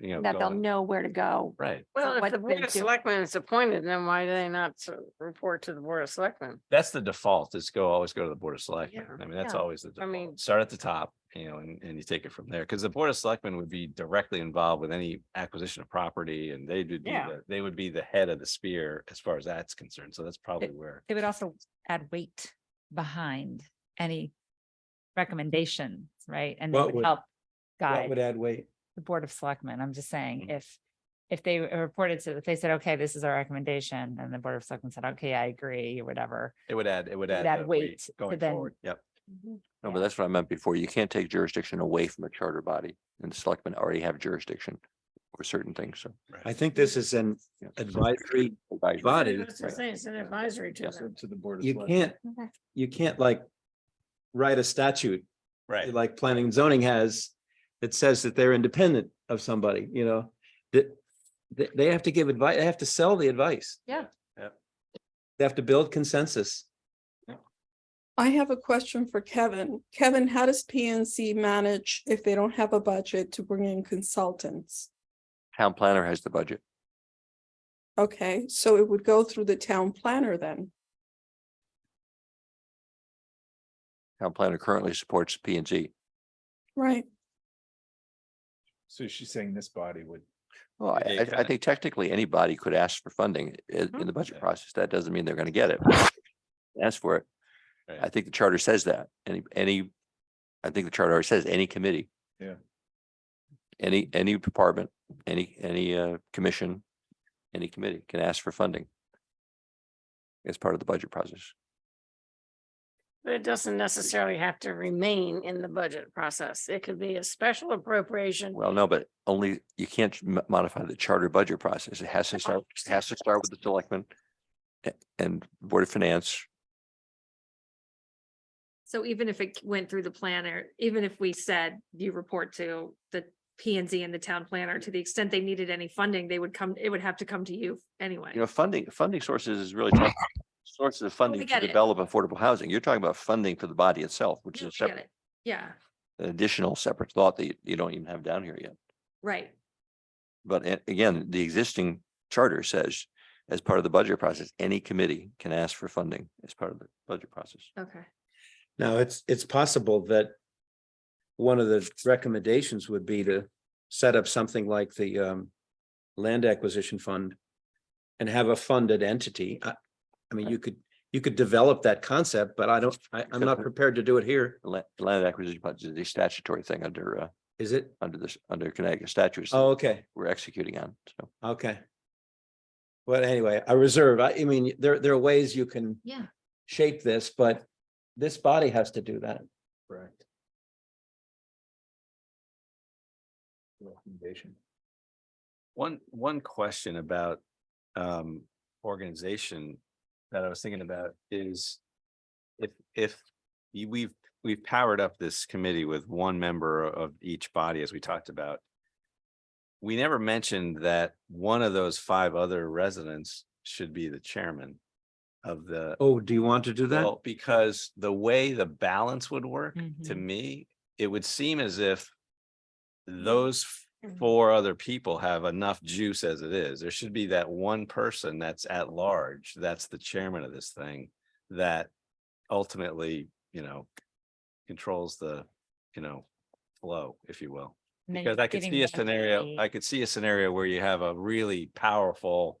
you know. that they'll going- know where to go. Right. So Well, if what the they board of do- selectmen is appointed, then why do they not s- report to the board of selectmen? That's the default is go, always go to the Board of Selectmen. Yeah. I mean, that's Yeah. always the I mean- default. Start at the top, you know, and, and you take it from there. Because the Board of Selectmen would be directly involved with any acquisition of property and they would be, Yeah. the- they would be the head of the spear as far as that's concerned. So that's probably where. They would also add weight behind any recommendations, right? And What that would would- help What would guide add weight? the Board of Selectmen. I'm just saying, Mhm. if, if they were reported to, if they said, okay, this is our recommendation, and the Board of Selectmen said, okay, I agree, or whatever. It would add, it would It add. would add uh, weight to Going then- forward, yep. Mm-hmm. No, but that's what I meant before. You can't take jurisdiction away from a charter body and the selectmen already have jurisdiction over certain things, so. I think this is an yeah. advisory Advisory. body. That's what I'm saying, It's an advisory to Yeah. them. To the Board You can't, Okay. you can't like write a statute Right. like planning and zoning has that says that they're independent of somebody, you know? That, they, they have to give advice, they have to sell the advice. Yeah. Yeah. They have to build consensus. I have a question for Kevin. Kevin, how does PNC manage if they don't have a budget to bring in consultants? Town planner has the budget. Okay, so it would go through the town planner then. Town planner currently supports P and Z. Right. So she's saying this body would, Well, I, They I- I kinda- think technically anybody could ask for funding i- in the budget Yeah. process. That doesn't mean they're gonna get it. Ask for it. Right. I think the charter says that. Any, any, I think the charter already says any committee. Yeah. Any, any department, any, any, uh, commission, any committee can ask for funding. As part of the budget process. But it doesn't necessarily have to remain in the budget process. It could be a special appropriation. Well, no, but only, you can't m- modify the charter budget process. It has to start, it has to start with the selectmen a- and Board of Finance. So even if it went through the planner, even if we said you report to the P and Z and the town planner, to the extent they needed any funding, they would come, it would have to come to you anyway. You know, funding, funding sources is really tough. Sources of funding to get it. develop affordable housing. You're talking about funding for the body itself, which No, is a I get separate, it. Yeah, an additional separate thought that you- you don't even have down here yet. right. But a- again, the existing charter says, as part of the budget process, any committee can ask for funding as part of the budget process. Okay. Now, it's, it's possible that one of the recommendations would be to set up something like the um land acquisition fund and have a funded entity. I, I mean, you could, you could develop that concept, but I don't, I, I'm not prepared to do it here. The la- Land acquisition budget is a statutory thing under, uh, Is it? under this, under Connecticut statutes. that Oh, okay. We're executing on, so. Okay. But anyway, I reserve, I, I mean, there, there are ways you can. Yeah. Shape this, but this body has to do that. correct? Recommendation. One, one question about um organization that I was thinking about is if, if you- we've, we've powered up this committee with one member of each body, as we talked about. We never mentioned that one of those five other residents should be the chairman of the, Oh, do you want to do that? well, because the way the balance would work, to Mhm. me, it would seem as if those four other people have enough juice as it is. There should be that one person that's at large, that's the chairman of this thing, that ultimately, you know, controls the, you know, flow, if you will. And then Because I could giving see a them scenario, the- I could see a scenario where you have a really powerful,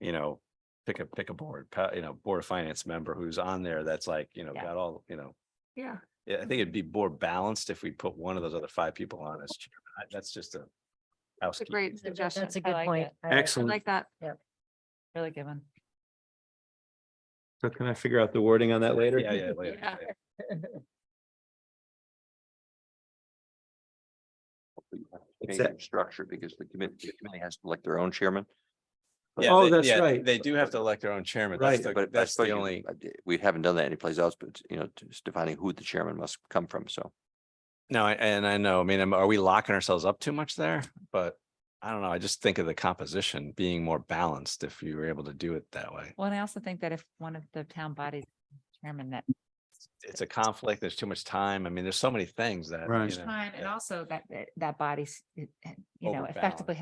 you know, pick a, pick a board, pa- you know, board of finance member who's on there that's like, you know, Yeah. got all, you know, Yeah. yeah, I think it'd be more balanced if we put one of those other five people on as chairman. I- That's just a It's a housekeeping. great suggestion. That's a I good like point. it. I like- I Excellent. like that. Really good one. So can I figure out the wording on that later? Yeah, yeah, later, Yeah. later. you have to It's change that- your Structure because the committee, the committee has to elect their own chairman. But- Yeah, Oh, they- that's yeah, right. They do have to elect their own chairman. That's Right. the- But but I That's suppose the you- only, I d- We haven't done that anyplace else, but you know, just defining who the chairman must come from, so. no, I- and I know, I mean, am- are we locking ourselves up too much there? But I don't know. I just think of the composition being more balanced if you were able to do it that way. Well, and I also think that if one of the town bodies, chairman that it's a conflict, there's too much time. I mean, there's so many things that. Right. you know, Time and yeah. also that, that- that body's, you know, Overbalanced. effectively